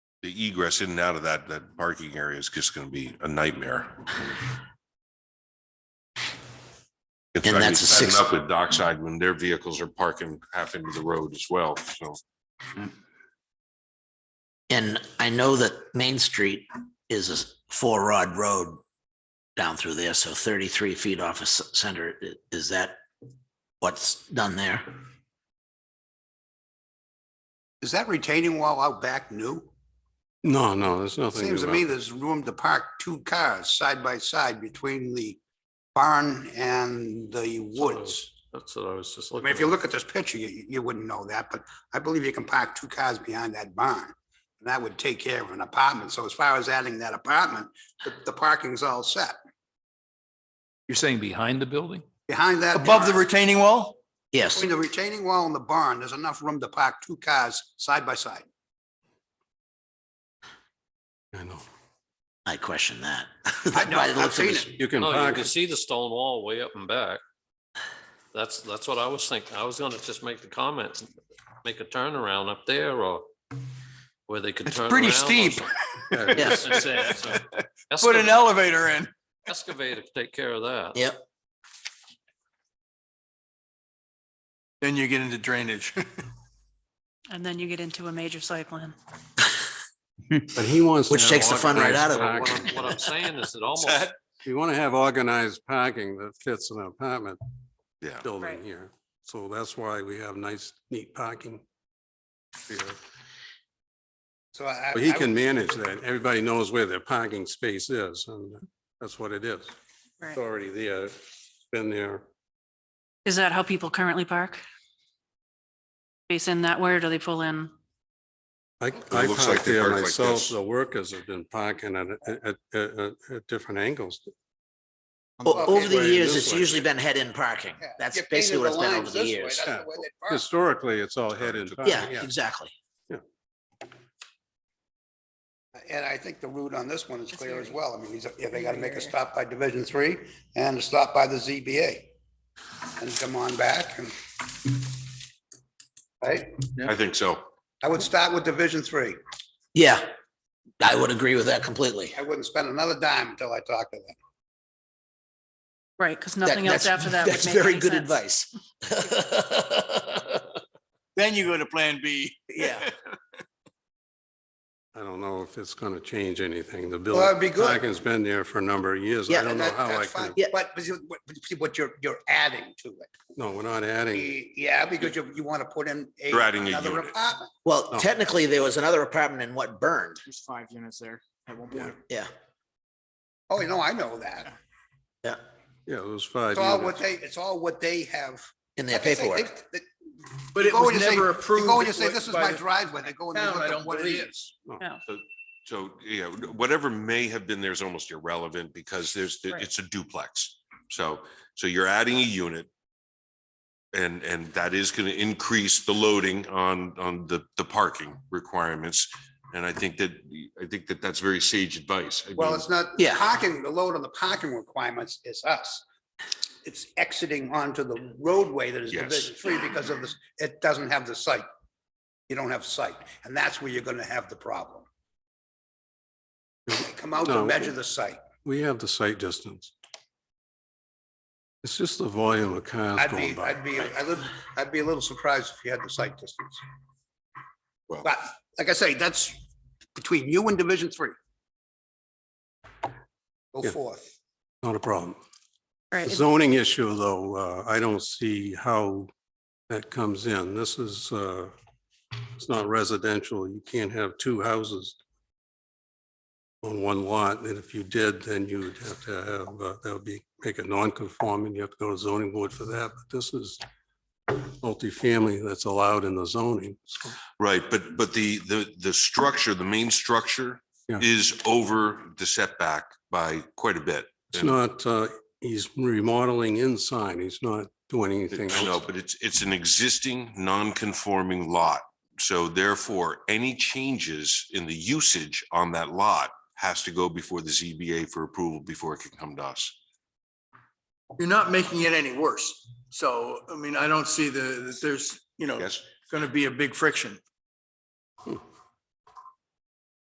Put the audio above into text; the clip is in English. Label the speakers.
Speaker 1: the egress in and out of that, that parking area is just gonna be a nightmare. It's
Speaker 2: And
Speaker 1: I mean,
Speaker 2: that's a
Speaker 1: it's adding
Speaker 2: six-
Speaker 1: Up with dockside when their vehicles are parking half into the road as well, so.
Speaker 2: And I know that Main Street is a four rod road down through there, so thirty-three feet off a center, i- is that what's done there?
Speaker 3: Is that retaining wall out back new?
Speaker 4: No, no, there's nothing.
Speaker 3: Seems to
Speaker 4: about-
Speaker 3: me there's room to park two cars side by side between the barn and the woods.
Speaker 4: That's what I was just
Speaker 3: I
Speaker 4: looking.
Speaker 3: mean, if you
Speaker 4: at.
Speaker 3: look at this picture, you, you wouldn't know that, but I believe you can park two cars behind that barn. And that would take care of an apartment. So as far as adding that apartment, the, the parking's all set.
Speaker 5: You're saying behind the building?
Speaker 3: Behind that.
Speaker 6: Above the
Speaker 3: barn-
Speaker 6: retaining wall?
Speaker 2: Yes,
Speaker 3: Between the retaining wall and the barn, there's enough room to park two cars side by side.
Speaker 4: I know.
Speaker 2: I question that.
Speaker 3: I know,
Speaker 2: By the
Speaker 3: I've
Speaker 2: looks of
Speaker 3: seen
Speaker 2: this-
Speaker 4: You can
Speaker 6: No, Oh, you
Speaker 4: park,
Speaker 6: can see the stone wall way up and back. That's, that's what I was thinking. I was gonna just make the comment, make a turnaround up there or where they could
Speaker 3: It's
Speaker 6: turn around.
Speaker 3: pretty
Speaker 6: or
Speaker 3: steep.
Speaker 6: something.
Speaker 2: Yes.
Speaker 6: That's it, so
Speaker 3: Put an
Speaker 6: excava-
Speaker 3: elevator in.
Speaker 6: Excavator could take care of that.
Speaker 2: Yep,
Speaker 3: Then you get into drainage.
Speaker 7: And then you get into a major site plan.
Speaker 4: but he wants. to
Speaker 2: Which
Speaker 4: have
Speaker 2: takes the fun right
Speaker 4: organized
Speaker 2: out of it.
Speaker 6: But What
Speaker 4: parking.
Speaker 6: I'm, what I'm saying is it almost,
Speaker 3: that?
Speaker 4: If You want to have organized parking that fits an apartment
Speaker 1: Yeah.
Speaker 7: Right.
Speaker 4: building here. So that's why we have nice, neat parking. here.
Speaker 3: So I.
Speaker 4: But he
Speaker 3: I-
Speaker 4: can manage that. Everybody knows where their parking space is and that's what it is. It's
Speaker 7: Right.
Speaker 4: already there, been there.
Speaker 7: Is that how people currently park? Face in that way, or do they pull in?
Speaker 4: I, I
Speaker 1: looks like
Speaker 4: parked
Speaker 1: they
Speaker 4: there
Speaker 1: park like
Speaker 4: myself.
Speaker 1: this.
Speaker 4: The workers have been parking at, at, at, at- at different angles.
Speaker 2: O- over
Speaker 4: Way
Speaker 2: the
Speaker 4: in
Speaker 2: years,
Speaker 4: this
Speaker 2: it's
Speaker 4: way.
Speaker 2: usually been head-in parking. That's basically what it's been over the years.
Speaker 4: that's the Historically, it's all headed.
Speaker 2: Yeah, exactly.
Speaker 3: And I think the route on this one is
Speaker 7: That's
Speaker 3: clear as
Speaker 7: very-
Speaker 3: well. I mean, he's- yeah, they gotta make a
Speaker 7: very-
Speaker 3: stop by Division Three and a stop by the ZBA. And come on back and. Right?
Speaker 1: I think so.
Speaker 3: I would start with Division Three.
Speaker 2: Yeah, I would agree with that completely.
Speaker 3: I wouldn't spend another dime until I talk to them.
Speaker 7: Right, because
Speaker 2: That-
Speaker 7: nothing else
Speaker 2: that's-
Speaker 7: after that would
Speaker 2: That's
Speaker 7: make
Speaker 2: very
Speaker 7: any
Speaker 2: good
Speaker 7: sense.
Speaker 2: advice.
Speaker 6: then you go to plan B.
Speaker 2: Yeah.
Speaker 4: I don't know if it's gonna change anything. The
Speaker 3: Well, that'd
Speaker 4: building,
Speaker 3: be good.
Speaker 4: parking's been there for a number of years. I
Speaker 2: Yeah,
Speaker 4: don't
Speaker 3: And
Speaker 4: know
Speaker 3: that-
Speaker 4: how I
Speaker 3: that's fine.
Speaker 4: can,
Speaker 2: Yeah.
Speaker 3: But, but you- but see what you're, you're adding to it.
Speaker 4: no, we're not adding.
Speaker 3: Y- Yeah, because you, you wanna put in. a-
Speaker 1: You're adding a
Speaker 3: another
Speaker 1: unit.
Speaker 3: apartment.
Speaker 2: Well,
Speaker 4: No.
Speaker 2: technically, there was another apartment in what burned.
Speaker 8: There's five units there at one
Speaker 4: Yeah.
Speaker 8: point.
Speaker 2: Yeah,
Speaker 3: Oh, no, I know that.
Speaker 2: yeah,
Speaker 4: Yeah, those five
Speaker 3: It's all what
Speaker 4: units.
Speaker 3: they, it's all what they have.
Speaker 2: in their
Speaker 3: Like I say,
Speaker 2: paperwork.
Speaker 3: they- they-
Speaker 9: But
Speaker 3: You
Speaker 9: it
Speaker 3: go
Speaker 9: was
Speaker 3: and you say-
Speaker 9: never
Speaker 3: You
Speaker 9: approved.
Speaker 3: go and you say, this is
Speaker 9: by
Speaker 3: my
Speaker 9: the
Speaker 3: driveway. They go and they
Speaker 9: town, I
Speaker 3: look
Speaker 9: don't
Speaker 3: at what it
Speaker 9: believe.
Speaker 3: is.
Speaker 1: So, yeah, whatever may have been there is almost irrelevant because there's, it's a duplex. So, so you're adding a unit. And, and that is going to increase the loading on, on the, the parking requirements. And I think that, I think that that's very sage advice. I
Speaker 3: Well,
Speaker 1: mean,
Speaker 3: it's not,
Speaker 2: Yeah.
Speaker 3: parking, the load on the parking requirements is us. It's exiting onto the roadway that is
Speaker 1: Yes.
Speaker 3: Division Three because of this, it doesn't have the site. You don't have site, and that's where you're gonna have the problem. They Come out
Speaker 4: No.
Speaker 3: and measure the site.
Speaker 4: We have the site distance. It's just the volume of cars
Speaker 3: I'd
Speaker 4: going
Speaker 3: be,
Speaker 4: by.
Speaker 3: I'd be, I'd live- I'd be a little surprised if you had the site distance.
Speaker 1: Well-
Speaker 3: But like I say, that's between you and Division Three. Go
Speaker 4: Yeah.
Speaker 3: forth.
Speaker 4: Not a problem. The
Speaker 7: Right,
Speaker 4: zoning issue, though, uh, I don't see how that comes in. This is, uh, it's not residential. You can't have two houses on one lot, and if you did, then you would have to have, uh, that would be, make it non-conforming. You have to go to zoning board for that, but this is multifamily that's allowed in the zoning. So
Speaker 1: Right, but, but the, the, the structure, the main structure
Speaker 4: Yeah.
Speaker 1: is over the setback by quite a bit.
Speaker 4: It's
Speaker 1: And-
Speaker 4: not, uh, he's remodeling inside. He's not doing anything
Speaker 1: No,
Speaker 4: else.
Speaker 1: but it's, it's an existing non-conforming lot. So therefore, any changes in the usage on that lot has to go before the ZBA for approval before it can come to us.
Speaker 9: You're not making it any worse. So, I mean, I don't see the, that there's, you know,
Speaker 1: Yes,
Speaker 9: going to be a big friction.